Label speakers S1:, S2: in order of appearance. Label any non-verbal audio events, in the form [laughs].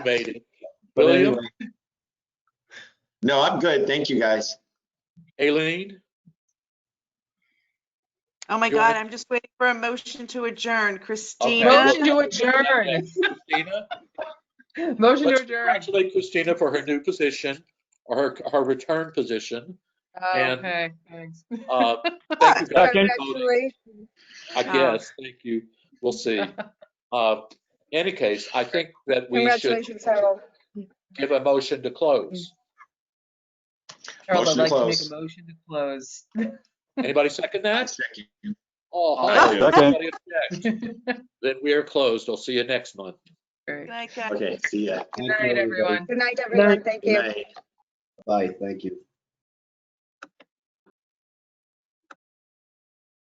S1: activated.
S2: But
S1: William?
S2: anyway. No, I'm good. Thank you, guys.
S1: Aileen,
S3: Oh my
S1: You wanna-
S3: God, I'm just waiting for a motion to adjourn. Christina,
S4: Motion to adjourn.
S5: [laughs]
S1: Christina,
S4: Motion to
S1: let's
S4: adjourn.
S1: congratulate Christina for her new position or her, her return position. and-
S4: Oh, Okay, thanks.
S1: Uh, Thank you guys for voting,
S5: Congratulations.
S1: I guess. Thank you. We'll
S5: [laughs]
S1: see. Uh, In any case, I think that we should
S5: Congratulations, Harold.
S1: give a motion to close.
S4: Harold,
S2: Motion
S4: I'd
S2: to
S4: like to make
S2: close.
S4: a motion to close. [laughs]
S1: Anybody second
S2: I
S1: that?
S2: second.
S1: Oh,
S2: I'll
S1: hello.
S6: second.
S1: Anybody object? Then we are closed. I'll see you next month.
S4: Great.
S3: like, uh,
S2: Okay, see ya.
S4: Good night, everyone.
S5: Good night, everyone. Thank
S2: Good
S5: you.
S2: night.
S7: Bye, thank you.